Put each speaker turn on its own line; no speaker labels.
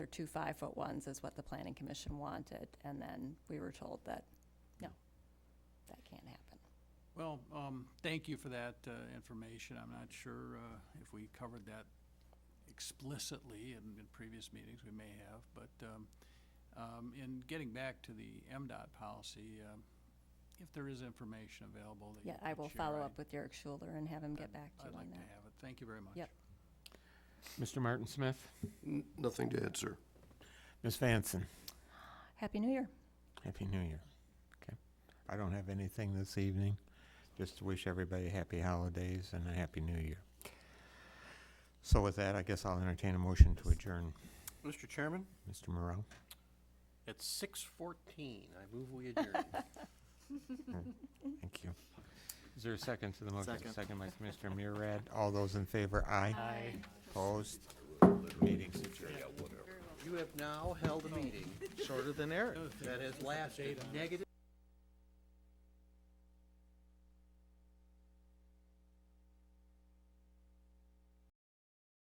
They're two five-foot ones is what the planning commission wanted, and then we were told that, no, that can't happen.
Well, um, thank you for that, uh, information. I'm not sure, uh, if we covered that explicitly in, in previous meetings, we may have, but, um, um, in getting back to the MDOT policy, um, if there is information available that you
Yeah, I
could
will
share,
follow
I'd-
up with Eric Schuler and have him get
I'd-
back to you on
I'd like to
that.
have it. Thank you very much.
Yep.
Mr. Martin Smith?
N- Nothing to add, sir.
Ms. Vanson?
Happy New Year.
Happy New Year. Okay. I don't have anything this evening. Just to wish everybody happy holidays and a happy new year. So with that, I guess I'll entertain a motion to adjourn.
Mr. Chairman?
Mr. Morrow?
At six fourteen, I move we adjourn.
Thank you. Is there a second to the motion?
Second.
by Commissioner Murad. All those in favor, aye. Aye. Opposed? Meeting's adjourned.
You have now held a meeting shorter than Eric that has lasted negative.